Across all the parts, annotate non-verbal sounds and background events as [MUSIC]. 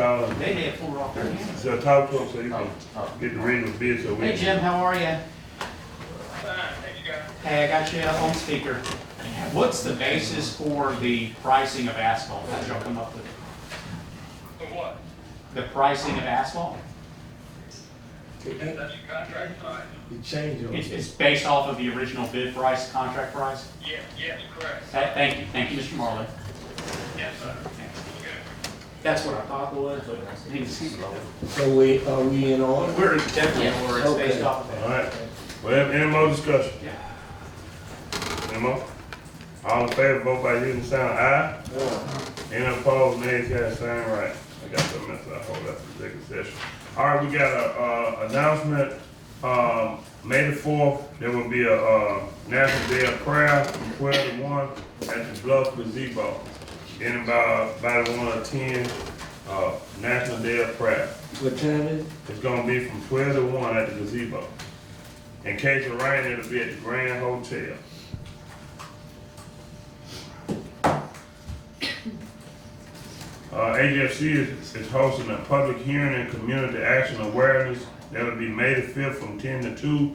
uh, They had four off their hands. so talk to him so you Oh, can oh. get the regular bid so we. Hey Jim, how are you? Fine, thanks, guys. Hey, I got you on speaker. What's the basis for the pricing of asphalt? Did y'all come up with The what? the pricing of asphalt? That's your contract price? It changed on It's, us. it's based off of the original bid price, contract price? Yes, yes, correct. Tha- Thank you, thank you, Mr. Marlin. Yes, sir. Good. That's what I thought it was, but I didn't see it. So we, are we in order? We're definitely, aware it's based Okay. off of All that. right, well, any more discussion? Yeah. Any more? All in favor, vote by using sound aye. Any opposed, nay, cast sign right. I got the message, I hold up the executive session. All right, we got a, uh, announcement, um, May the fourth, there will be a, uh, National Day of Prayer from twelve to one at the Bluff Gazebo. Anybody, anybody wanna attend, uh, National Day of Prayer? What time is it? It's gonna be from twelve to one at the gazebo. In case of rain, it'll be at the Grand Hotel. [COUGHS] Uh, AGFC is, is hosting a public hearing and community action awareness that'll be May the fifth from ten to two.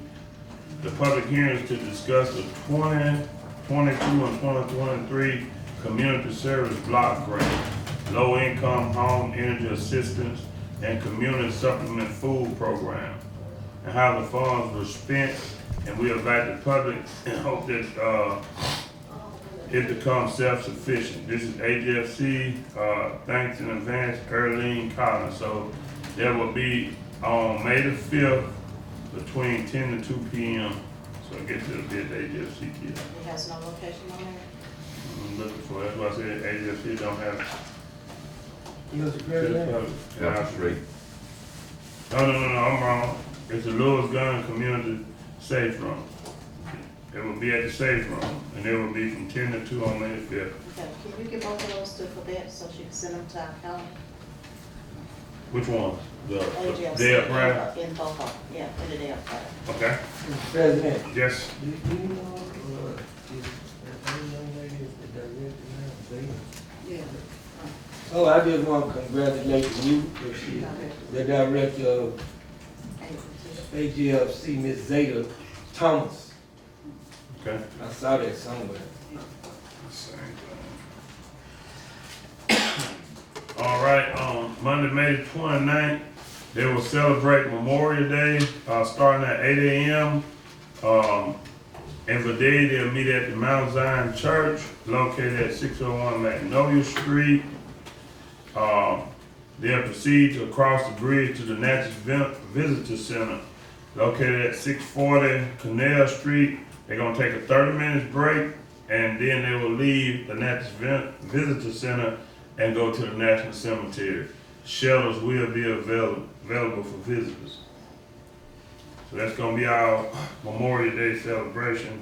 The public hearing is to discuss the 20, 22, and twenty twenty-three community service block grant, low-income home energy assistance, and community supplement food program, and how the funds were spent, and we invite the public and hope that, uh, it becomes self-sufficient. This is AGFC, uh, thanks in advance, Earlene Collins. So that will be on May the fifth between ten to two P M. So I get to the bid AGFC kid. It has no location on there? I'm looking for, that's why I said AGFC don't have. Mr. President? Yeah, Street. No, no, no, no, I'm wrong. It's the Lewis Gun Community Safe Room. It will be at the safe room, and it will be from ten to two on May the fifth. Okay, can you give both of those to Colette so she can send them to our county? Which one? The, the, AGFC. the upright? In both of them, yeah, in the day of prayer. Okay, Mr. President? yes. Do do you know, uh, is, that any young lady is the director now? They- Yeah. Oh, I just want to congratulate you, if she, the director of AGFC, Ms. Zeta Thomas. Okay. I saw that somewhere. Same thing. All right, um, Monday, May the 29th, they will celebrate Memorial Day, uh, starting at eight AM. Um, and for day, they'll meet at the Mount Zion Church, located at six oh one Magnolia Street. Um, they'll proceed to cross the bridge to the Natchez Vin- Visitor Center, located at six forty Canal Street. They're gonna take a thirty minutes break, and then they will leave the Natchez Vin- Visitor Center and go to the National Cemetery. Shelters will be available, available for visitors. So that's gonna be our Memorial Day celebration.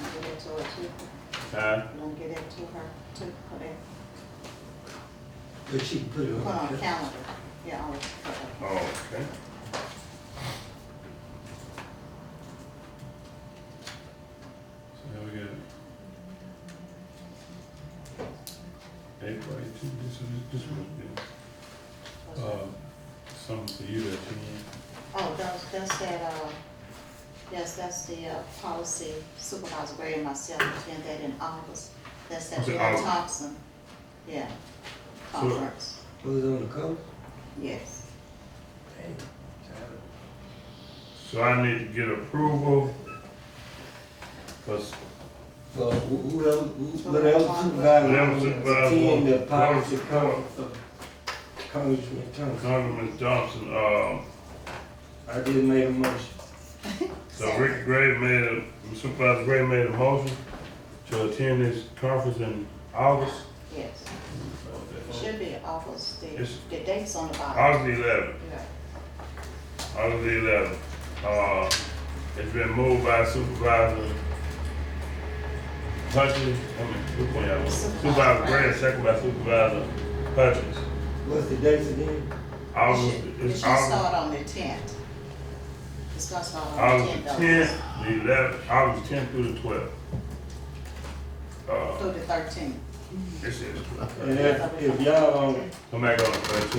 I'll give it to her too. Uh, I'm gonna get it to her too, Colette. But she put it Put on on. calendar, yeah, I'll put it. Oh, okay. So now we got. April eighteen, this is, this was, uh, something for you to attend. Oh, that's, that's that, uh, yes, that's the, uh, policy supervisor Gray and myself attend that in August. That's that Was it Bill August? Thompson, yeah, So- conference, Put it on the cover? yes. Dang, child. So I need to get approval. Cause So who who else, who- what else supervisor, Whatever supervisor team, Uh, the wants. policy Whatever conference of Congressman Thompson. Congressman Thompson, uh, I just made a motion. so Rick Gray made a, Supervisor Gray made a motion to attend this conference in August. Yes, should be August, the, Yes. the date's on the bottom. August eleventh. Yeah. Item eleven, uh, it's been moved by Supervisor Hutchins, I mean, which one y'all want? Supervisor Gray, second by Supervisor Hutchins. What's the date again? It August, should- It should it's August, start on the tenth. It's gonna start on the August tenth the of tenth, the eleventh, August tenth through the twelfth. Uh, through the thirteenth. this is, And if, if y'all um, on come back on the thirteenth.